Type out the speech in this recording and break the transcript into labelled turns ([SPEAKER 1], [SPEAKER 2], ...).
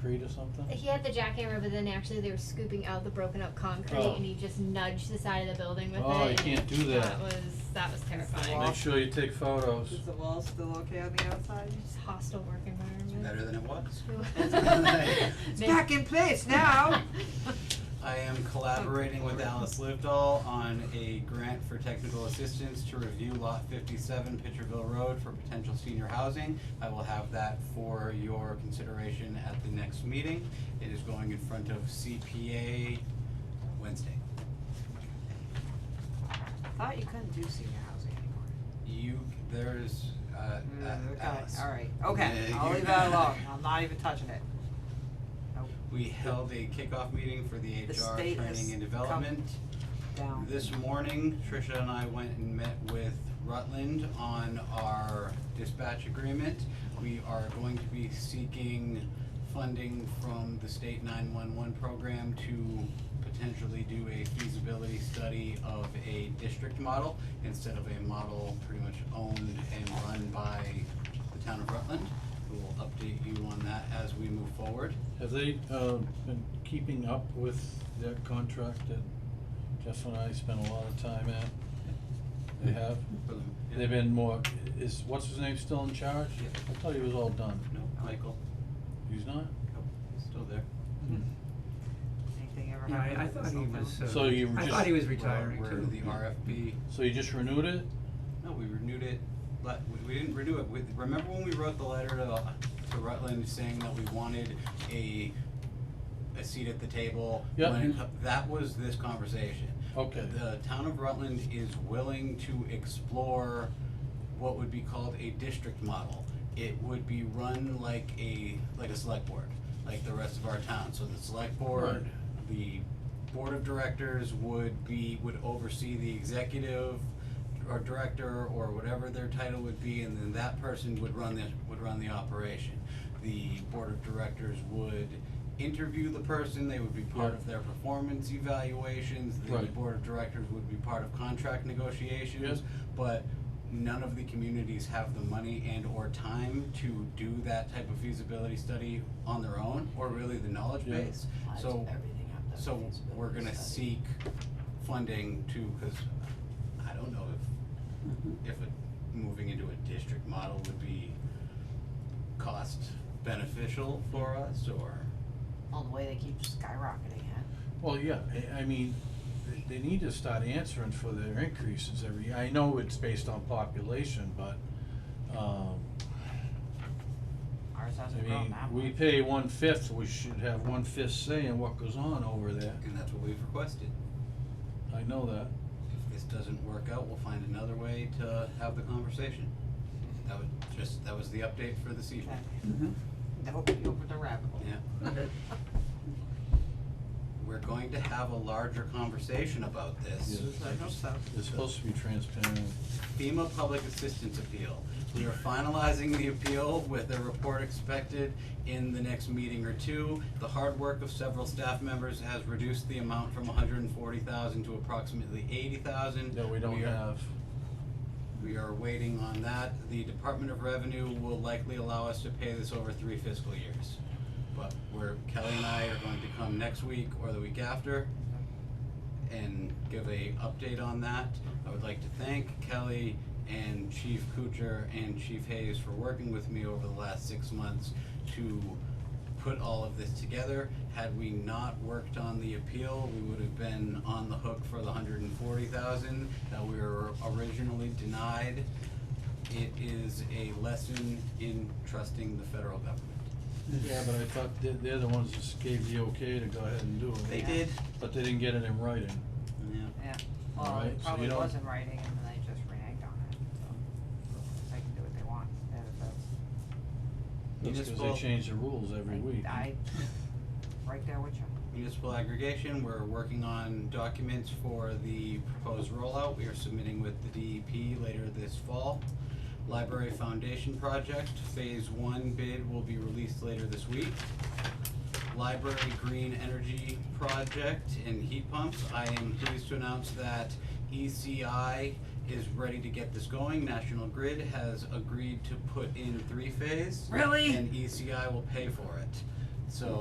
[SPEAKER 1] Creed or something?
[SPEAKER 2] He had the jackhammer, but then actually they were scooping out the broken up concrete,
[SPEAKER 1] Oh.
[SPEAKER 2] and he just nudged the side of the building with it.
[SPEAKER 1] Oh, you
[SPEAKER 2] and
[SPEAKER 1] can't do that.
[SPEAKER 2] That was that was terrifying.
[SPEAKER 1] Make sure you take photos.
[SPEAKER 3] Is the wall still okay on the outside?
[SPEAKER 2] It's a hostile work environment.
[SPEAKER 4] Better than it was.
[SPEAKER 3] It's
[SPEAKER 2] Make-
[SPEAKER 3] back in place now.
[SPEAKER 4] I am collaborating with Alice Livedall on a grant for technical assistance to review lot fifty-seven Pitcherville Road for potential senior housing. I will have that for your consideration at the next meeting. It is going in front of CPA Wednesday.
[SPEAKER 3] Thought you couldn't do senior housing anymore.
[SPEAKER 4] You, there's, uh,
[SPEAKER 3] Mm,
[SPEAKER 4] a- Alice.
[SPEAKER 3] okay, alright, okay,
[SPEAKER 4] Yeah,
[SPEAKER 3] I'll
[SPEAKER 4] you-
[SPEAKER 3] leave that alone, I'm not even touching it.
[SPEAKER 4] We held a kickoff meeting for the
[SPEAKER 3] The
[SPEAKER 4] HR
[SPEAKER 3] state has
[SPEAKER 4] training and
[SPEAKER 3] come-
[SPEAKER 4] development.
[SPEAKER 3] Down.
[SPEAKER 4] This morning, Trisha and I went and met with Rutland on our dispatch agreement. We are going to be seeking funding from the state nine-one-one program to potentially do a feasibility study of a district model instead of a model pretty much owned and run by the town of Rutland. We will update you on that as we move forward.
[SPEAKER 1] Have they, um, been keeping up with that contract that Jeff and I spent a lot of time at? They have? They've been more, is, what's his name still in charge?
[SPEAKER 4] Yeah.
[SPEAKER 1] I thought he was all done.
[SPEAKER 4] No, Michael,
[SPEAKER 1] He's not?
[SPEAKER 4] nope, still there. Mm-hmm.
[SPEAKER 3] Anything ever
[SPEAKER 5] Yeah,
[SPEAKER 3] happened
[SPEAKER 5] I- I
[SPEAKER 3] with the
[SPEAKER 5] thought he
[SPEAKER 3] cell
[SPEAKER 5] was,
[SPEAKER 3] phone?
[SPEAKER 5] uh,
[SPEAKER 1] So you
[SPEAKER 5] I
[SPEAKER 1] just-
[SPEAKER 5] thought he was retiring
[SPEAKER 4] We're,
[SPEAKER 5] too.
[SPEAKER 4] the RFP,
[SPEAKER 1] So you just renewed it?
[SPEAKER 4] no, we renewed it, but we, we didn't renew it, with, remember when we wrote the letter to, to Rutland saying that we wanted a, a seat at the table?
[SPEAKER 1] Yeah.
[SPEAKER 4] when it co- That was this conversation.
[SPEAKER 1] Okay.
[SPEAKER 4] The town of Rutland is willing to explore what would be called a district model. It would be run like a, like a select board, like the rest of our town, so the select board, the board of directors would be, would oversee the executive or director or whatever their title would be, and then that person would run the, would run the operation. The board of directors would interview the person, they would be part of their performance evaluations, the
[SPEAKER 1] Right.
[SPEAKER 4] board of directors would be part of contract negotiations,
[SPEAKER 1] Yes.
[SPEAKER 4] but none of the communities have the money and or time to do that type of feasibility study on their own, or really the knowledge
[SPEAKER 1] Yeah.
[SPEAKER 4] base. So, so we're gonna seek funding to, cause I don't know if, if a, moving into a district model would be cost beneficial for us, or.
[SPEAKER 6] Well, the way they keep skyrocketing it.
[SPEAKER 1] Well, yeah, I, I mean, they- they need to start answering for their increases every, I know it's based on population, but, um,
[SPEAKER 6] Ours
[SPEAKER 1] I
[SPEAKER 6] hasn't grown
[SPEAKER 1] mean,
[SPEAKER 6] that much.
[SPEAKER 1] we pay one-fifth, we should have one-fifth say in what goes on over there.
[SPEAKER 4] And that's what we've requested.
[SPEAKER 1] I know that.
[SPEAKER 4] If this doesn't work out, we'll find another way to have the conversation. That was just, that was the update for this
[SPEAKER 3] Okay.
[SPEAKER 4] evening.
[SPEAKER 5] Mm-hmm.
[SPEAKER 3] Nope, you opened the rabbit hole.
[SPEAKER 4] Yeah.
[SPEAKER 5] Okay.
[SPEAKER 4] We're going to have a larger conversation about this.
[SPEAKER 1] Yes.
[SPEAKER 3] I hope so.
[SPEAKER 1] It's supposed to be transparent.
[SPEAKER 4] FEMA Public Assistance Appeal. We are finalizing the appeal with a report expected in the next meeting or two. The hard work of several staff members has reduced the amount from hundred and forty thousand to approximately eighty thousand.
[SPEAKER 1] that we don't have.
[SPEAKER 4] We are waiting on that. The Department of Revenue will likely allow us to pay this over three fiscal years. But we're, Kelly and I are going to come next week or the week after and give a update on that. I would like to thank Kelly and Chief Kuchar and Chief Hayes for working with me over the last six months to put all of this together. Had we not worked on the appeal, we would have been on the hook for the hundred and forty thousand that we were originally denied. It is a lesson in trusting the federal government.
[SPEAKER 1] Yeah, but I thought they're, they're the ones that gave the okay to go ahead and do it.
[SPEAKER 4] They
[SPEAKER 3] Yeah.
[SPEAKER 4] did,
[SPEAKER 1] But they didn't get it in writing.
[SPEAKER 4] yeah.
[SPEAKER 3] Yeah, well,
[SPEAKER 1] Alright,
[SPEAKER 3] it
[SPEAKER 1] so
[SPEAKER 3] probably
[SPEAKER 1] you don't-
[SPEAKER 3] was in writing and then they just reneged on it, so they can do what they want, and if that's,
[SPEAKER 1] That's because they
[SPEAKER 4] Municipal-
[SPEAKER 1] change the rules every week.
[SPEAKER 3] I, I, right there with you.
[SPEAKER 4] municipal aggregation, we're working on documents for the proposed rollout, we are submitting with the DEP later this fall. Library Foundation Project, Phase One bid will be released later this week. Library Green Energy Project and heat pumps, I am pleased to announce that ECI is ready to get this going, National Grid has agreed to put in three-phase.
[SPEAKER 3] Really?
[SPEAKER 4] E And ECI will pay for it. So